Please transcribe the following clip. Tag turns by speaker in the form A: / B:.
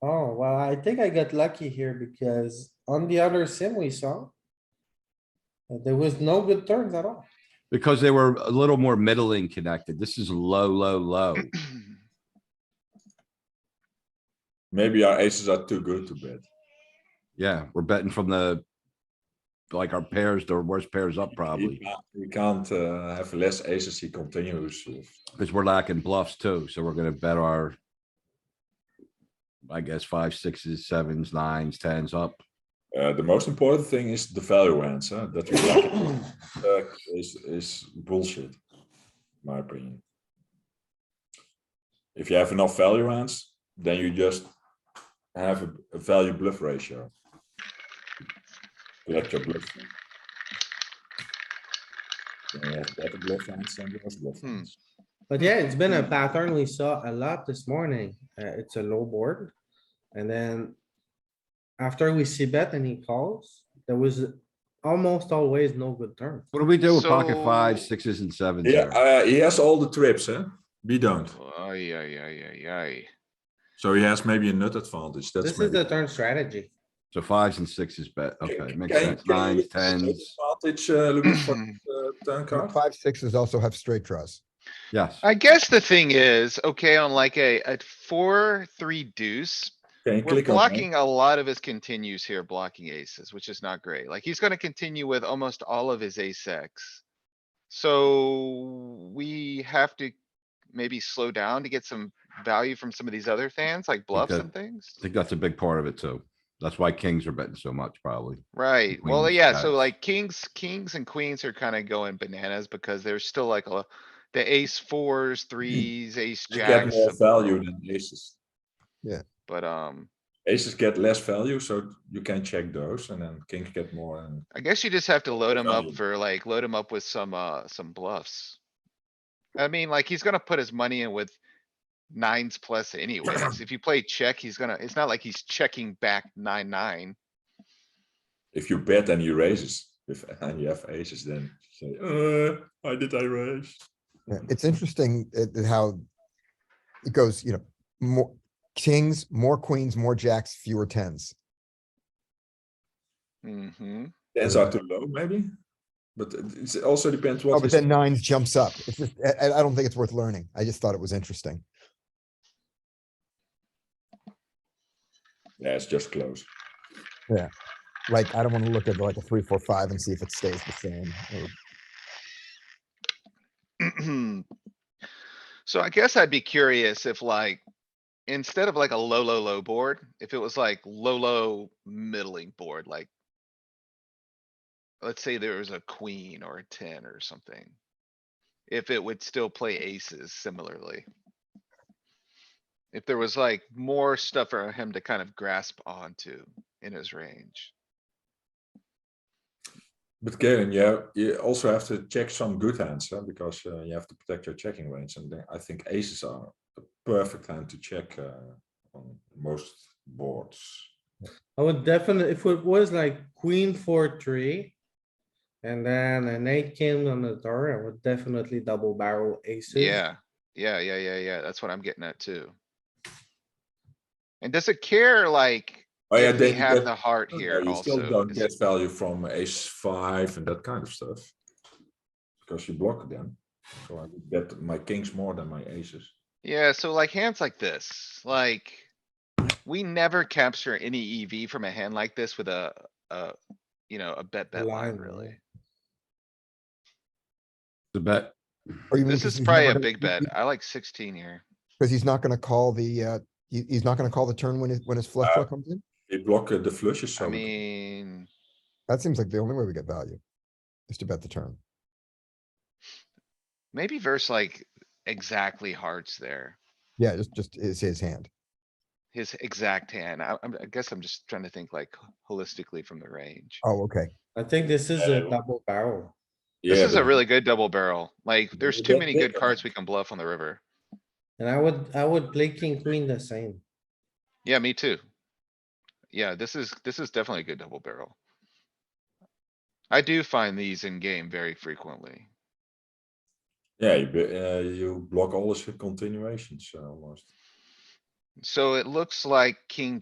A: Oh, I think I got lucky here because on the other sim we saw. that There was no good turns at all.
B: Because they were a little more middling connected. This is low, low, low.
C: Maybe our aces are too good to bet.
B: Yeah, we're betting from the. Like our pairs, the worst pairs up
C: He
B: probably,
C: can't, he can't uh, have less aces. He continues. with-
B: because we're lacking bluffs too, so we're gonna bet our. I guess five, sixes, sevens, nines, tens up.
C: Uh, the most important thing is the value hands. Huh? That we like uh, is is bullshit, in my opinion. If you have enough value hands, then you just have a, a value bluff ratio. Let your bluff. Then you have better bluff hands than worse bluff
D: Hmm.
C: hands.
A: But yeah, it's been a pattern we saw a lot this morning. Uh, it's a low board. And then after we see bet and he calls, there was almost always no good turn.
B: What do we do with pocket fives,
D: So-
B: sixes and sevens?
C: Yeah,
B: there?
C: uh, he has all the trips, huh? We don't.
D: Ay, ay, ay, ay, ay.
C: So he has maybe a nut advantage. That's
A: This is
C: maybe.
A: the turn strategy.
B: So fives and sixes bet, okay,
C: Can-
B: makes
C: can-
B: sense,
C: can you
B: nines,
C: look at the nut
B: tens,
C: Advantage, uh, Louis, for the turn card.
E: Five, sixes also have straight draws.
B: yes.
D: I guess the thing is, okay, on like a, a four, three deuce,
C: Can you
D: we're
C: click on that?
D: blocking a lot of his continues here, blocking aces, which is not great. Like, he's gonna continue with almost all of his ace X. So we have to maybe slow down to get some value from some of these other fans, like bluffs
B: Okay.
D: and things.
B: I think that's a big part of it too. That's why kings are betting so much, probably.
D: Right, well,
B: queens,
D: yeah, so
B: guys.
D: like kings, kings and queens are kinda going bananas because there's still like a, the ace fours, threes, ace
C: You get
D: jacks.
C: Mm. more
D: some-
C: value than aces.
D: But, um,
C: Aces get less value, so you can check those, and then kings get more. And
D: I guess you just have to load him
C: Value.
D: up for like, load him up with some, uh, some bluffs. I mean, like, he's gonna put his money in with nines plus anyways. If you play check, he's gonna, it's not like he's checking back nine, nine.
C: if you bet and you raises, if and you have aces, then you say, uh, why did I raise?
E: Yeah,
D: Mm-hmm.
E: It's interesting uh, uh, how it goes, you know, more kings, more queens, more jacks, fewer tens.
D: Mm-hmm.
C: Tens are too low, maybe. But it it also depends what.
E: Oh, but
C: is-
E: then nines jumps up. It's just, I, I- I don't think it's worth learning. I just thought it was interesting.
C: Yeah, it's just close.
E: Like, I don't want to look at like a three, four, five and see if it stays the same. or-
D: So I guess I'd be curious if like, instead of like a low, low, low board, if it was like low, low, middling board, like. Let's say there was a queen or a ten or something. If it would still play aces similarly. If there was like more stuff for him to kind of grasp onto in his range.
C: But Galen, yeah, you also have to check some good hands, huh? because uh, you have to protect your checking range, and then I think aces are a perfect hand to check uh, on most boards.
A: I would definitely, if it was like queen, four, three. And then an eight came on the turn, I would definitely double barrel aces.
D: Yeah, yeah, yeah, yeah, yeah. That's what I'm getting at too. And does it care like
C: Oh yeah,
D: if we
C: then you
D: have
C: get-
D: the heart
C: No,
D: here
C: You still
D: also?
C: don't
D: Is-
C: get value from ace five and that kind of stuff. Because you block them. So I would bet my kings more than my aces.
D: Yeah, so like hands like this, like. We never capture any EV from a hand like this with a, a, you know, a bet bet line
A: Blind,
D: really.
B: The bet,
E: or even
D: This
E: because
D: is
E: he's
D: probably
E: never
D: a
E: gonna-
D: big bet. I like sixteen here.
E: Because he's not going to call the, uh, he- he's not going to call the turn when his, when his flush
C: Uh,
E: draw comes in.
C: You block uh, the flushes,
D: I
C: so we-
D: mean,
E: That seems like the only way we get value is to bet the turn.
D: maybe verse like exactly hearts there.
E: Yeah, just, just is his hand.
D: His exact hand. I, I'm- I guess I'm just trying to think like holistically from the range.
E: Oh, okay.
A: I think this is a
C: Yeah.
A: double barrel.
C: Yeah,
D: This is a
C: but
D: really good double barrel. Like, there's
C: Maybe
D: too
C: that's
D: many
C: it,
D: good
C: or-
D: cards we can bluff on the river.
A: And I would, I would play king, queen the same.
D: Yeah, me too. Yeah, this is, this is definitely a good double barrel. I do find these in game very frequently.
C: Yeah, you, be- uh, you block all the continuations uh, almost.
D: So it looks like king